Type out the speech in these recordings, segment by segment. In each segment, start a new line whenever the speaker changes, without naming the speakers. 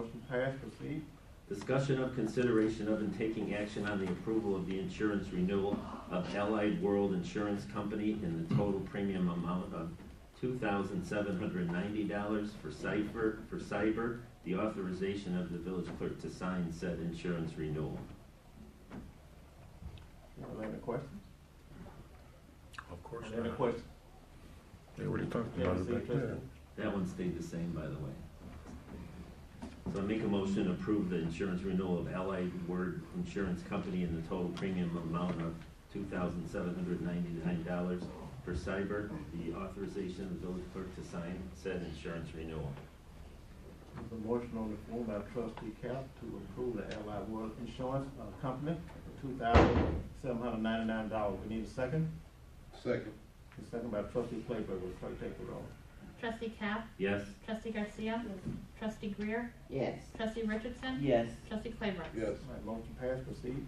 Motion passed, proceed.
Discussion of consideration of and taking action on the approval of the insurance renewal of Allied World Insurance Company in the total premium amount of two thousand seven hundred ninety dollars for cyber, for cyber, the authorization of the village clerk to sign said insurance renewal.
Anyone have any questions?
Of course
Any
not.
questions?
They already talked
Yeah,
about
City
it back
Clerk.
there.
That one stayed the same, by the way. So I make a motion to approve the insurance renewal of Allied Word Insurance Company in the total premium amount of two thousand seven hundred ninety-nine dollars for cyber, the authorization of the village clerk to sign said insurance renewal.
There's a motion on the floor by trustee Cap to approve the Allied World Insurance uh, Company for two thousand seven hundred ninety-nine dollars. We need a second.
Second.
The second by trustee Claybrook. Will clerk take the roll?
Trustee Cap,
Yes?
trustee Garcia, trustee Greer,
Yes.
trustee Richardson,
Yes.
trustee Claybrook.
Yes.
All right, motion passed, proceed.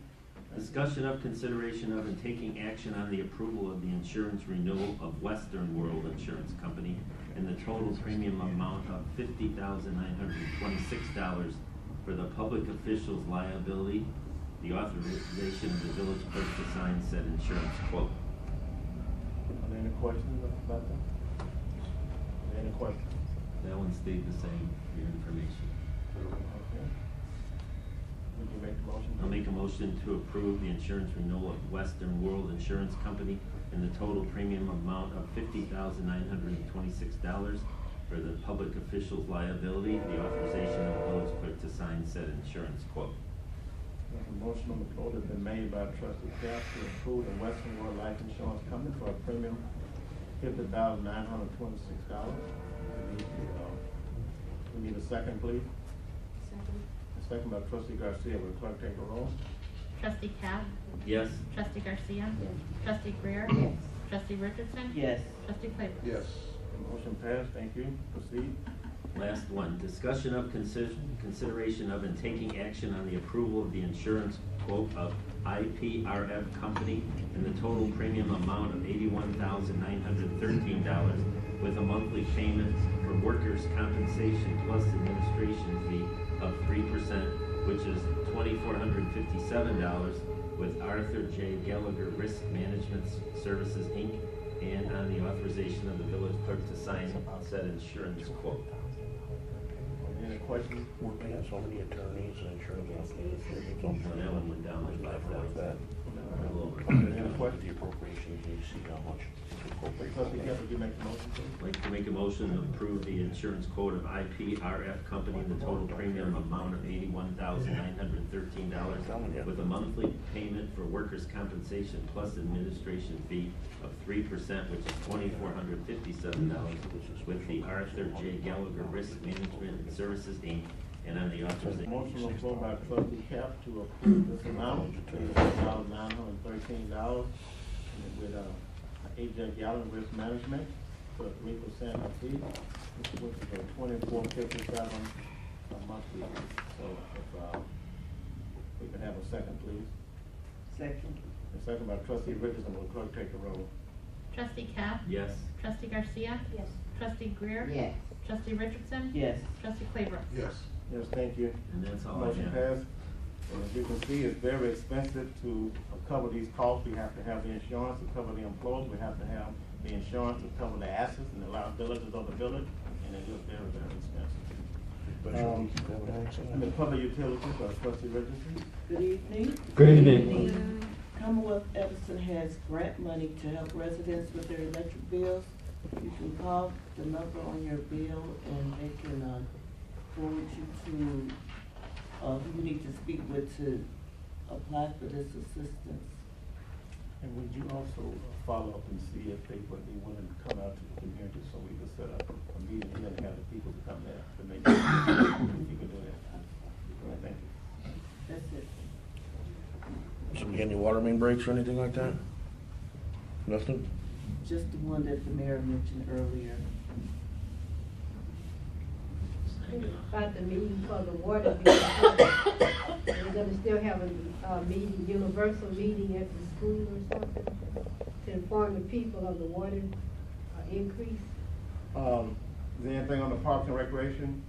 Discussion of consideration of and taking action on the approval of the insurance renewal of Western World Insurance Company in the total premium amount of fifty thousand nine hundred and twenty-six dollars for the public officials liability, the authorization of the village clerk to sign said insurance quote.
Are there any questions about that? Are there any questions?
That one stayed the same, for your information.
Okay. Would you make the motion?
I'll make a motion to approve the insurance renewal of Western World Insurance Company in the total premium amount of fifty thousand nine hundred and twenty-six dollars for the public official's liability, the authorization of village clerk to sign said insurance quote.
There's a motion on the floor that's been made by trustee Cap to approve the Western World Life Insurance Company for a premium fifty thousand nine hundred twenty-six dollars. We need a second, please. A second by trustee Garcia, will clerk take the roll?
Trustee Cap,
Yes?
trustee Garcia, trustee Greer,
Yes.
trustee Richardson,
Yes.
trustee Claybrook.
Yes.
Motion passed, thank you, proceed.
Last one, discussion of consider- consideration of and taking action on the approval of the insurance quote of IPRF Company in the total premium amount of eighty-one thousand nine hundred thirteen dollars with a monthly payment for workers' compensation plus administration fee of three percent, which is twenty-four hundred fifty-seven dollars with Arthur J. Gallagher Risk Management Services, Inc., and on the authorization of the village clerk to sign said insurance quote.
Any questions?
We're paying so many attorneys and insurance companies, it's all
So that one went down like five
like that.
thousand. A little over.
Any
The
questions?
appropriations, you see how much to appropriate.
Trustee Cap, would you make the motion, please?
I'd Like to make a motion to approve the insurance quote of IPRF Company in the total premium amount of eighty-one thousand nine hundred thirteen dollars with a monthly payment for workers' compensation plus administration fee of three percent, which is twenty-four hundred fifty-seven dollars with the Arthur J. Gallagher Risk Management and Services, Inc., and on the authorization.
Motion on the floor by trustee Cap to approve this amount, eighty-one thousand nine hundred and thirteen dollars with, uh, AJ Gallagher Risk Management for three percent of fee, which is a twenty-four fifty-seven a monthly. So if, uh, we can have a second, please.
Second?
A second by trustee Richardson, will clerk take the roll?
Trustee Cap,
Yes?
trustee Garcia,
Yes.
trustee Greer,
Yes.
trustee Richardson,
Yes.
trustee Claybrook.
Yes.
Yes, thank you.
And that's all I have.
Motion passed. And As you can see, it's very expensive to cover these costs. We have to have the insurance to cover the employees. We have to have the insurance to cover the assets and the liabilities of the village, and it is very, very expensive.
But you keep having accidents.
And the public utilities, uh, trustee Richardson?
Good evening.
Good evening.
Commonwealth Edison has grant money to help residents with their electric bills. You can call the number on your bill and they can, um, forward you to, uh, who you need to speak with to apply for this assistance.
And would you also follow up and see if they would be willing to come out to the community so we could set up a meeting here and have the people to come there to make, if you could do that? All right, Thank you.
That's it.
So we get any water main breaks or anything like that? Nothing?
Just the one that the mayor mentioned earlier.
About the meeting for the water. bill. We're gonna still have a, uh meeting, universal meeting at the school or something to inform the people of the water uh, increase.
Um, is there anything on the parks and recreation?